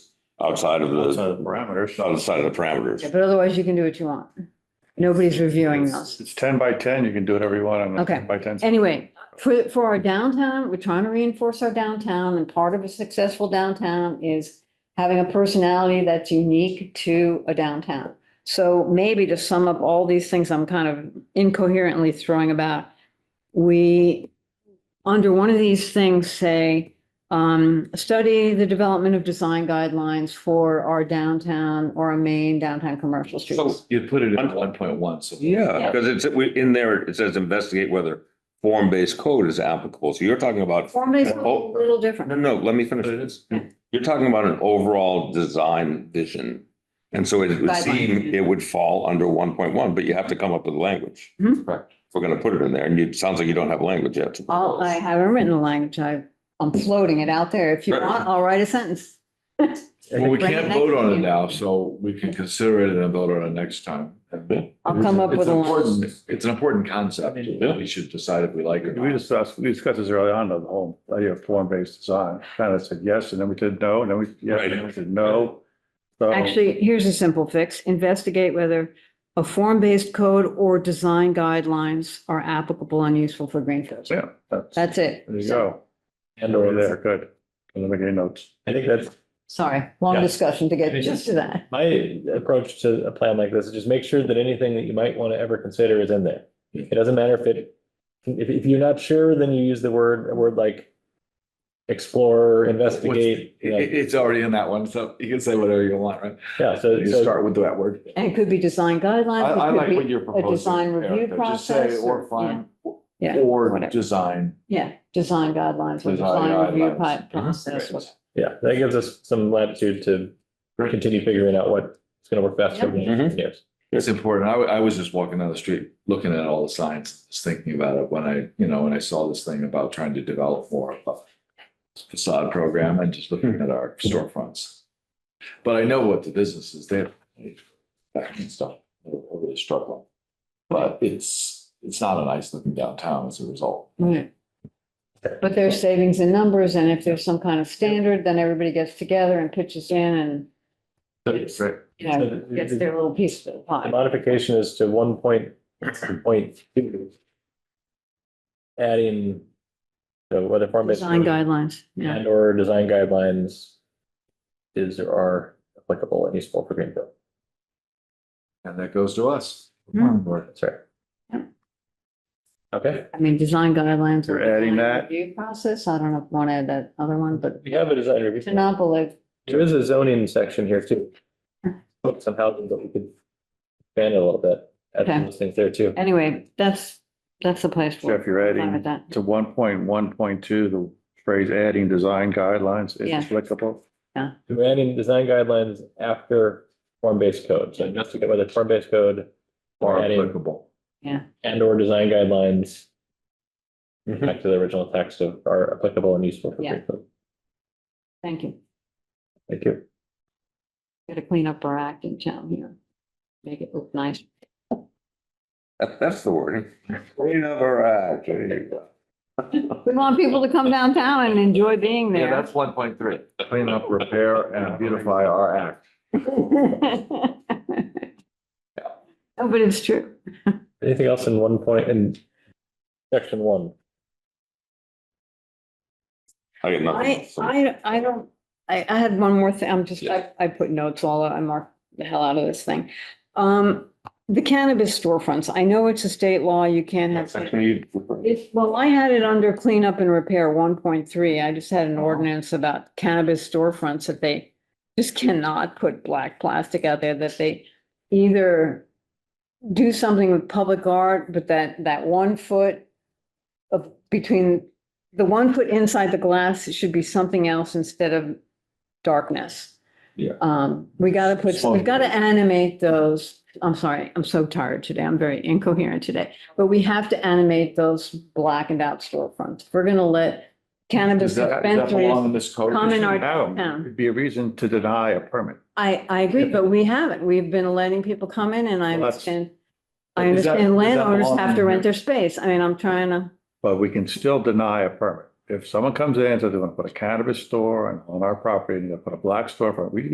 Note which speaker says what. Speaker 1: outside of the,
Speaker 2: outside of the parameters.
Speaker 1: outside of the parameters.
Speaker 3: Yeah, But otherwise, you can do what you want. Nobody's reviewing
Speaker 2: It's
Speaker 3: those.
Speaker 2: it's ten by ten, you can do whatever you want on a
Speaker 3: Okay.
Speaker 2: ten by ten.
Speaker 3: Anyway, for, for our downtown, we're trying to reinforce our downtown and part of a successful downtown is having a personality that's unique to a downtown. So maybe to sum up all these things I'm kind of incoherently throwing about, we, under one of these things, say, um, study the development of design guidelines for our downtown or our main downtown commercial
Speaker 1: So
Speaker 3: streets.
Speaker 2: You put it in one point one, so.
Speaker 1: Yeah, because it's, we- in there, it says investigate whether form-based code is applicable. So you're talking about,
Speaker 3: Form-based, a little different.
Speaker 1: no, no, let me finish.
Speaker 2: But it is.
Speaker 1: You're talking about an overall design vision. And so it would seem,
Speaker 3: Guideline.
Speaker 1: it would fall under one point one, but you have to come up with language.
Speaker 3: Mhm.
Speaker 2: Correct.
Speaker 1: If we're gonna put it in there, and you, it sounds like you don't have language yet. to
Speaker 3: All, Oh, I
Speaker 1: propose.
Speaker 3: haven't written the language. I, I'm floating it out there. If you
Speaker 1: Right.
Speaker 3: want, I'll write a sentence.
Speaker 4: Well, we
Speaker 3: Bring it
Speaker 4: can't
Speaker 3: next
Speaker 4: vote on it
Speaker 3: meeting.
Speaker 4: now, so we can consider it and vote on it next time.
Speaker 3: I'll come up
Speaker 4: It's
Speaker 3: with a line.
Speaker 4: important, it's an important concept. We should decide if we like it or
Speaker 2: We
Speaker 4: not.
Speaker 2: discussed, we discussed this early on, the whole idea of form-based design, kind of said yes, and then we did no, and then we, yes, and then we said no. So-
Speaker 3: Actually, here's a simple fix. Investigate whether a form-based code or design guidelines are applicable and useful for Greenfield.
Speaker 2: Yeah, that's, there
Speaker 3: That's it.
Speaker 2: you
Speaker 3: So-
Speaker 2: go. And over there, good. I'm making notes.
Speaker 5: I think that's
Speaker 3: Sorry, long
Speaker 5: Yeah.
Speaker 3: discussion to get just to that.
Speaker 5: my approach to a plan like this, is just make sure that anything that you might want to ever consider is in there. It doesn't matter if it, if, if you're not sure, then you use the word, a word like explore, investigate. you
Speaker 4: It-
Speaker 5: know.
Speaker 4: it- it's already in that one, so you can say whatever you want, right?
Speaker 5: Yeah, so,
Speaker 4: You
Speaker 5: so
Speaker 4: start with that word.
Speaker 3: And it could be design
Speaker 4: I,
Speaker 3: guidelines.
Speaker 4: I
Speaker 3: it could
Speaker 4: like
Speaker 3: be-
Speaker 4: what you're proposing.
Speaker 3: design review
Speaker 4: Erica. Just say
Speaker 3: process
Speaker 4: Or
Speaker 3: or-
Speaker 4: find,
Speaker 3: yeah, yeah,
Speaker 4: or
Speaker 3: whatever.
Speaker 4: design.
Speaker 3: Yeah, design guidelines or
Speaker 4: Design
Speaker 3: design review
Speaker 4: guidelines.
Speaker 3: pi-
Speaker 4: Mhm.
Speaker 3: process.
Speaker 4: Right.
Speaker 5: Yeah, that gives us some latitude to continue figuring out what's gonna work best for the
Speaker 1: Yep.
Speaker 5: engineers.
Speaker 4: It's important. I, wa- I was just walking down the street, looking at all the signs, just thinking about it when I, you know, when I saw this thing about trying to develop more of a facade program and just looking at our storefronts. But I know what the business is there. That kind of stuff, they're really struggling. But it's, it's not a nice looking downtown as a result.
Speaker 3: Right. But there's savings in numbers, and if there's some kind of standard, then everybody gets together and pitches in and,
Speaker 4: Right.
Speaker 3: you know, gets their little piece of the
Speaker 5: The
Speaker 3: pie.
Speaker 5: modification is to one point, point two. Adding, so whether form based.
Speaker 3: Design guidelines, yeah.
Speaker 5: And or design guidelines is or are applicable and useful for Greenfield.
Speaker 4: And that goes to us.
Speaker 3: Hmm.
Speaker 5: That's right.
Speaker 3: Yeah.
Speaker 5: Okay,
Speaker 3: I mean, design guidelines. or
Speaker 2: You're adding
Speaker 3: design
Speaker 2: that?
Speaker 3: Review process, I don't know if I want to add that other one, but
Speaker 5: we have a design review.
Speaker 3: to not believe,
Speaker 5: There is a zoning section here too. Somehow, but we could expand it a little bit, add
Speaker 3: Okay.
Speaker 5: those things there too.
Speaker 3: anyway, that's, that's the place for
Speaker 2: Jeff,
Speaker 3: it.
Speaker 2: you're
Speaker 3: I'm fine with
Speaker 2: adding
Speaker 3: that.
Speaker 2: to one point one point two, the phrase adding design guidelines is
Speaker 3: Yeah.
Speaker 2: applicable.
Speaker 5: We're adding design guidelines after form-based code, so investigate whether form-based code
Speaker 4: Or
Speaker 5: or adding
Speaker 4: applicable.
Speaker 5: and or design guidelines
Speaker 1: Mhm.
Speaker 5: back to the original text of are applicable and useful for
Speaker 3: Mm-hmm. Yeah.
Speaker 5: Greenfield.
Speaker 3: Thank you.
Speaker 5: Thank you.
Speaker 3: Got to clean up our act in town here. Make it look nice.
Speaker 1: That, that's the word. Clean up our act. There you go.
Speaker 3: We want people to come downtown and enjoy being
Speaker 4: Yeah,
Speaker 3: there.
Speaker 4: that's one point three.
Speaker 2: Clean up, repair,
Speaker 4: And beautify our act.
Speaker 3: No, but it's true.
Speaker 5: Anything else in one point in section one?
Speaker 1: I got nothing.
Speaker 3: I,
Speaker 1: else.
Speaker 3: I, I don't, I, I had one more thing. I'm just, I, I put notes all, out. I marked the hell out of this thing. Um, the cannabis storefronts, I know it's a state law, you can't
Speaker 1: That's
Speaker 3: have.
Speaker 1: actually-
Speaker 3: It's, well, I had it under cleanup and repair one point three. I just had an ordinance about cannabis storefronts that they just cannot put black plastic out there, that they either do something with public art, but that, that one foot of, between, the one foot inside the glass, it should be something else instead of darkness.
Speaker 4: Yeah.
Speaker 3: Um, we gotta put, we've gotta animate those, I'm sorry, I'm so tired today, I'm very incoherent today. But we have to animate those blackened out storefronts. If We're gonna let cannabis
Speaker 4: Does that, does that belong
Speaker 3: dispensaries,
Speaker 4: in this code?
Speaker 3: common art-
Speaker 2: Now,
Speaker 3: Yeah.
Speaker 2: it'd be a reason to deny a permit.
Speaker 3: I, I agree, but we haven't. We've been letting people come in and I
Speaker 2: Well, that's-
Speaker 3: understand. I
Speaker 4: Is that-
Speaker 3: understand
Speaker 4: does that
Speaker 3: landowners
Speaker 4: belong
Speaker 3: have to
Speaker 4: in
Speaker 3: rent
Speaker 4: here?
Speaker 3: their space. I mean, I'm trying to.
Speaker 2: But we can still deny a permit. If someone comes in and says they want to put a cannabis store on- on our property and they put a black storefront, we can